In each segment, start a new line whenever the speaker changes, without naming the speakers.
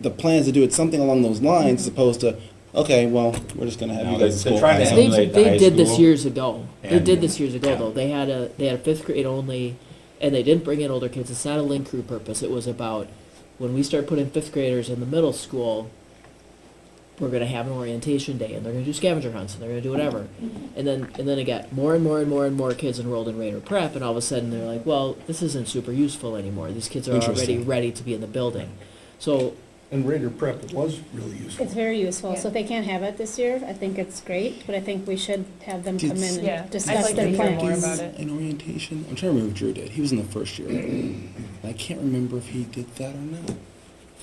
the plans to do it something along those lines, as opposed to, okay, well, we're just gonna have
No,
you
they-
guys.
they're
go
trying to
outside.
They,
emulate the
they
high
did this
school,
years ago. They
and-
did this years ago
yeah.
though. They had a they had a fifth grade only, and they didn't bring in older kids. It's not a link crew purpose. It was about when we start putting fifth graders in the middle school. We're gonna have an orientation day, and they're gonna do scavenger hunts, and they're gonna do whatever, and then and then it got more and more and more and more kids enrolled in Raider Prep, and all of a sudden they're like, well, this isn't super useful anymore. These kids are already
Interesting.
ready to be in the building, so
And Raider Prep was really useful.
It's very useful, so if they can't have it this year, I think it's great, but I think we should have them come in
Yeah,
and
I'd
discuss
like to
their
hear more
plans.
about it.
An orientation, I'm trying to remember if Drew did, he was in the first year. And I can't remember if he did that or not.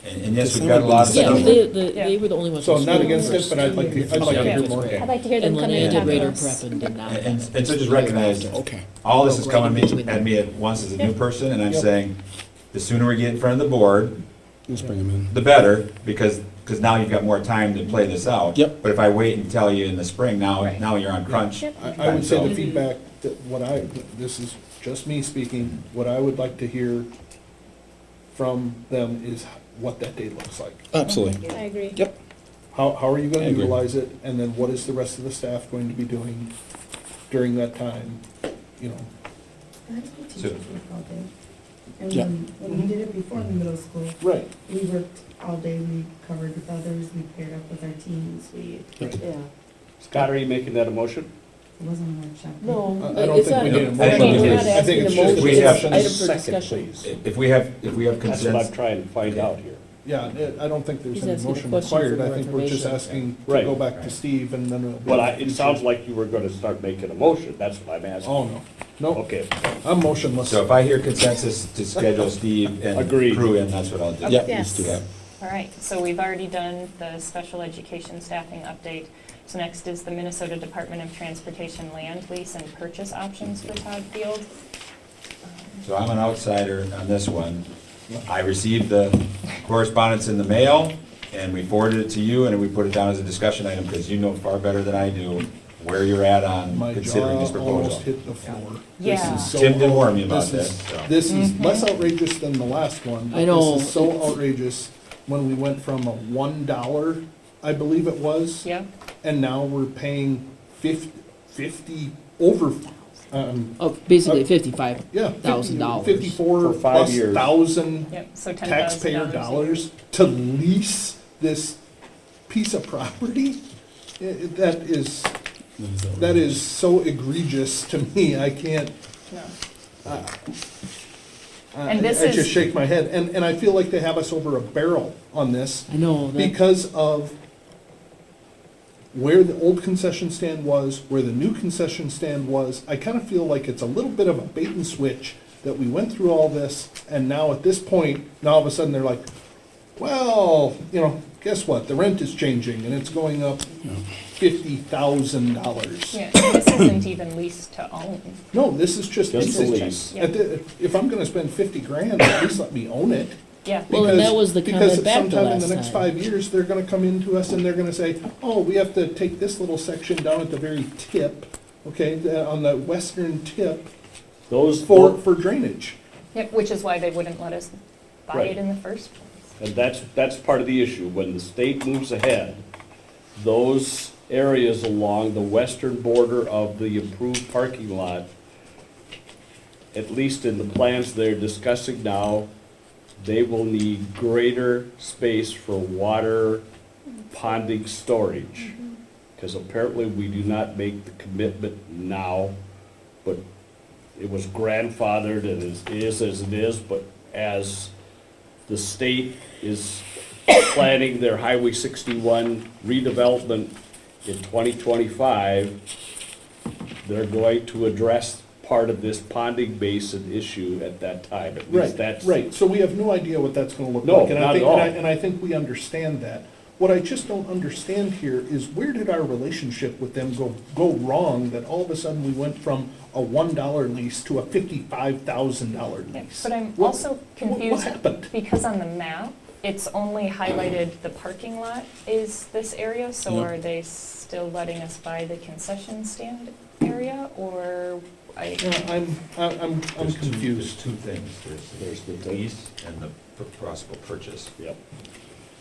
And and yes,
Does
we've got a
someone
lot of.
That's
yeah,
good.
they, the, they
Yeah.
were the only ones.
So
who
I'm not
screwed
against
first.
it, but I'd like to, I'd like to hear more.
I'd like to hear them
And
come in
Linnea
and
did
talk to
Raider
us.
Prep and did not.
And,
have
and so just
Raider Prep.
recognize,
Okay.
all this is coming at me- at me at once as a new person, and I'm
Yep.
saying, the sooner we get in front of the board,
Let's bring him in.
the better, because, because now you've got more time to play this out.
Yep.
But if I wait and tell you in the spring, now,
Right.
now you're on crunch.
Yep.
I, I would say
Mhm.
the feedback, that what I, this is just me speaking, what I would like to hear from them is what that day looks like.
Absolutely.
I agree.
Yep.
How, how are you
I
gonna
agree.
utilize it, and then what is the rest of the staff going to be doing during that time, you know?
How did we teach it all day? And
Yeah.
when, when we did it before in the middle school,
Right.
we worked all day, we covered with others, we paired up with our teams, we,
Yeah.
Scott, are you making that a motion?
it wasn't a workshop.
No,
I- I don't
it's
think
not.
we need a
I think
motion.
we're
not
I
asking
think it's
a
just a
motion. We have-
discussion.
Item for
Second,
discussion.
please.
If we have, if we have
That's what I'm
consensus,
trying to find out here.
Yeah, I I don't think there's
He's
any
asking a
motion
question for
required, I
more
think we're just
information.
asking to
Right.
go back to
Right.
Steve and then. it'll be-
Well, I, it sounds like you were gonna start making a motion, that's what I'm asking.
Oh, no, no,
Okay,
I'm motionless.
so if I hear consensus to schedule Steve and
Agreed.
crew in, that's what I'll do.
Yep, let's
Yes.
do that.
All right, so we've already done the special education staffing update. So next is the Minnesota Department of Transportation land lease and purchase options for Todd Field.
So I'm an outsider on this one. I received the correspondence in the mail, and we forwarded it to you, and we put it down as a discussion item, because you know far better than I do where you're at on
My
considering this
jaw
proposal.
almost hit the floor.
Yeah. Mm-hmm.
This is so
Tim did warn me about
out- is-
this, so.
This is less outrageous than the last one. but
I know.
This is so outrageous when we went from a one dollar, I believe it was.
Yeah,
And now we're paying fif- fifty, over, um,
Of Oh, basically
Uh,
fifty-five
yeah.
thousand dollars.
Fifty-four
For five
plus
years.
thousand
yep, so ten thousand
taxpayer
dollars.
dollars to lease this piece of property? I- I- That is, that is so egregious to me, I can't, I
And this
I
is-
just shake my head. And, and I feel like they have us over a barrel on this
I know, that,
because of where the old concession stand was, where the new concession stand was. I kind of feel like it's a little bit of a bait and switch that we went through all this and now at this point, now all of a sudden they're like, well, you know, guess what? The rent is changing and it's going up fifty thousand dollars.
Yeah, this isn't even leased to own.
No, this is just,
Just the
it's-
lease.
at the- if I'm gonna spend fifty grand, at least let me own it.
Yeah,
Well, and that
Because-
was the comment back the
Because sometime in
last
the next
time.
five years, they're gonna come into us and they're gonna say, oh, we have to take this little section down at the very tip, okay, the- on the western tip
those
for,
four,
for drainage.
Yep, which is why they wouldn't let us buy
Right.
it in the first place.
and that's, that's part of the issue, when the state moves ahead, those areas along the western border of the improved parking lot, at least in the plans they're discussing now, they will need greater space for water ponding storage. Because apparently we do not make the commitment now, but it was grandfathered and is, is as it is, but as the state is planning their Highway sixty-one redevelopment in twenty twenty-five, they're going to address part of this ponding basin issue at that time. At least
Right,
that's
right, so we have no idea what that's gonna look
No,
like. and I
not at
think- and I-
all.
And I think we understand that. What I just don't understand here is where did our relationship with them go, go wrong that all of a sudden we went from a one dollar lease to a fifty-five thousand dollar
Yeah,
lease?
But I'm
What-
also
What
confused
happened?
Because on the map, it's only highlighted the parking lot is this area, so
Yeah.
are they still letting us buy the concession stand area, or I,
Yeah, I'm, I- I'm, I'm
There's two- There's
confused.
two things, there's, there's the lease and the p- possible purchase.
Yep.